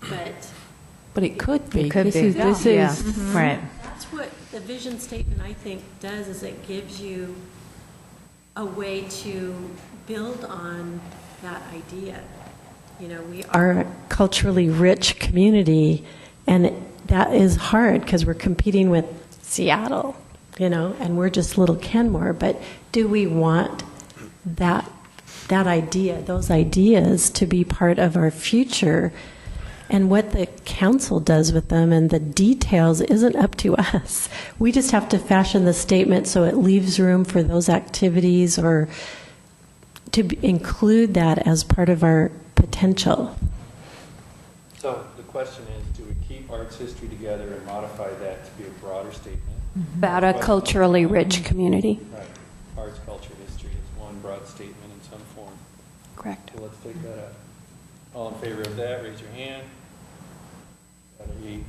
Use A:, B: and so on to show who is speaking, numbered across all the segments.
A: but
B: But it could be.
C: It could
B: This
C: be.
B: is- This
C: Yeah.
B: is,
C: Mhm. Right.
A: that's what the vision statement, I think, does, is it gives you a way to build on that idea. You know, we
D: are a culturally rich community, and that is hard because we're competing with Seattle, you know, and we're just little Kenmore. But do we want that that idea, those ideas, to be part of our future? And what the council does with them and the details isn't up to us. We just have to fashion the statement so it leaves room for those activities or to b- include that as part of our potential.
E: So the question is, do we keep arts history together and modify that to be a broader statement?
F: About a culturally rich community,
C: Mm-hmm.
E: Right, arts, culture, history is one broad statement in some form.
F: correct?
E: So let's take that up. All in favor of that, raise your hand. That'll be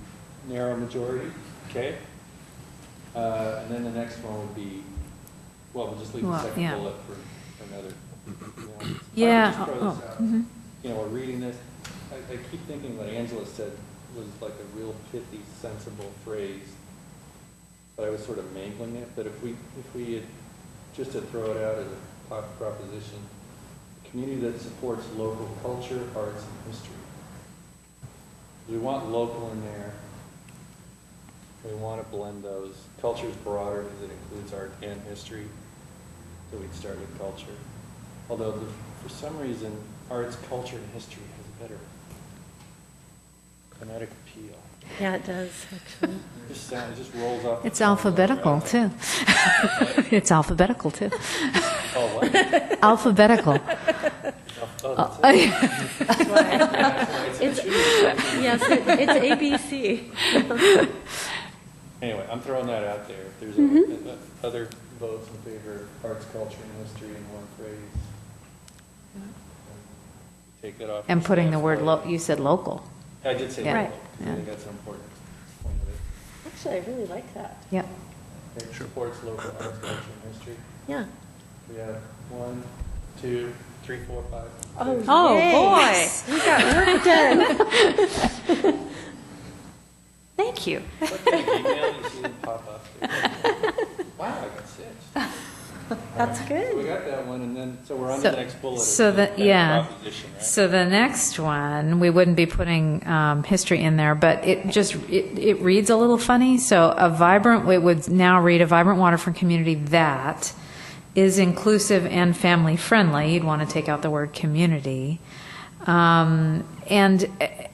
E: narrow majority, okay? Uh, And then the next one would be, well, we'll just leave the
C: Well,
E: second
C: yeah.
E: bullet for for another. you know. I would
C: Yeah,
E: just throw
C: oh,
E: this out.
C: mhm.
E: You know, we're reading this, I, I keep thinking what Angela said was like a real pithy, sensible phrase, but I was sort of mangling it, but if we, if we had, just to throw it out as a pop- proposition, community that supports local culture, arts, and history. We want local in there. We want to blend those. Culture's broader because it includes art and history, so we'd start with culture. Although, the- for some reason, arts, culture, and history has a better phonetic appeal.
D: Yeah, it does, actually.
E: It just sounds, it just rolls Oh, off. the
C: It's
E: tongue.
C: alphabetical, too. It's alphabetical, too.
E: Oh, what?
C: Alphabetical. Uh,
E: Oh, that's it.
A: Yes, it- it's ABC.
E: Anyway, I'm throwing that out there. If there's
C: Mm-hmm.
E: a- a- other votes in favor of arts, culture, and history in one phrase, take that off.
C: And putting the word, lo-
E: local.
C: you said local.
E: I did say
C: Yeah. Right.
E: local, 'cause I
C: Yeah.
E: think that's an important point of it.
D: Actually, I really like that.
C: Yep.
E: It supports local arts, culture, and history.
D: Yeah.
E: We have one, two, three, four, five. six.
B: oh, boy.
F: Thank you.
E: What kind of email you see that pop up? Wow, I got six. That's good. We got that one, and then, so we're on to
C: So-
E: the next bullet.
C: So
E: of the
C: that, yeah.
E: proposition, right?
C: So the next one, we wouldn't be putting um, history in there, but it just, it it reads a little funny. So a vibrant, it would now read a vibrant waterfront community that is inclusive and family-friendly. You'd want to take out the word community. Um, And, eh,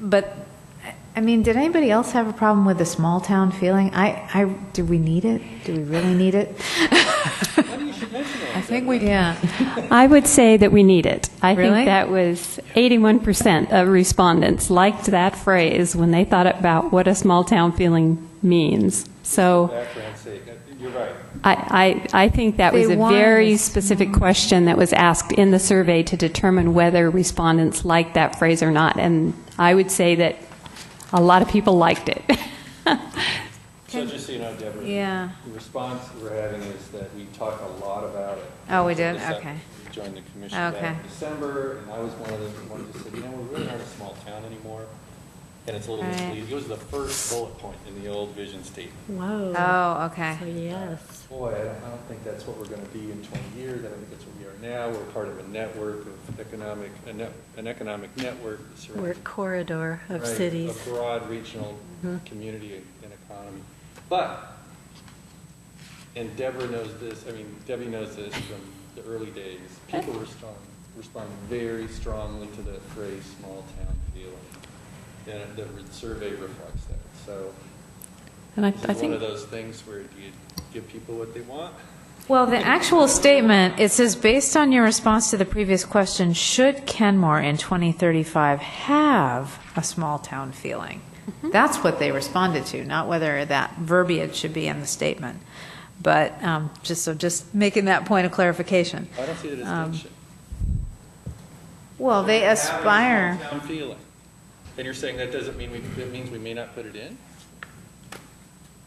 C: but, I mean, did anybody else have a problem with the small-town feeling? I, I, do we need it? Do we really need it?
B: I think we,
C: Yeah.
F: I would say that we need it. I
C: Really?
F: think that was 81% of respondents liked that phrase when they thought about what a small town feeling means. So
E: Background's sake, I- you're right.
F: I, I, I think that was
C: They
F: a
C: wanted
F: very
C: this-
F: specific question that was asked in the survey to determine whether respondents liked that phrase or not. And I would say that a lot of people liked it.
E: So just so you know, Deborah.
C: Yeah.
E: The response we're having is that we talk a lot about it.
C: Oh, we did?
E: This up-
C: Okay.
E: we Joined the commission back
C: Okay.
E: in December, and I was one of the ones that said, you know, we're really not a small town anymore, and it's a little
C: Right.
E: misleading. It was the first bullet point in the old vision statement.
D: Whoa.
C: Oh, okay.
D: So, yes.
E: Boy, I don't, I don't think that's what we're gonna be in twenty years, I don't think that's what we are now, we're part of a network of economic, a net- an economic network. that surrounds-
D: We're a corridor of
E: Right,
D: cities.
E: A broad regional community and and economy. But, and Deborah knows this, I mean, Debbie knows this from the early days, people respond, respond very strongly to the phrase small town feeling. And the re- survey reflects that, so
B: and I
E: this
B: I
E: is one of
B: think,
E: those things where do you give people what they want?
C: Well, the actual statement, it says, based on your response to the previous question, should Kenmore in 2035 have a small-town feeling? That's what they responded to, not whether that verbiage should be in the statement. But um, just, so just making that point of clarification.
E: I don't see the
C: Um,
E: distinction.
C: Well, they
E: Have a
C: aspire,
E: small-town feeling. And you're saying that doesn't mean we, that means we may not put it in?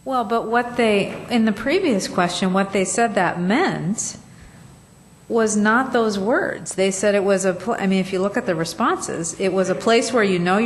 C: well, but what they, in the previous question, what they said that meant was not those words. They said it was a, pl- I mean, if you look at the responses, it was a place where you know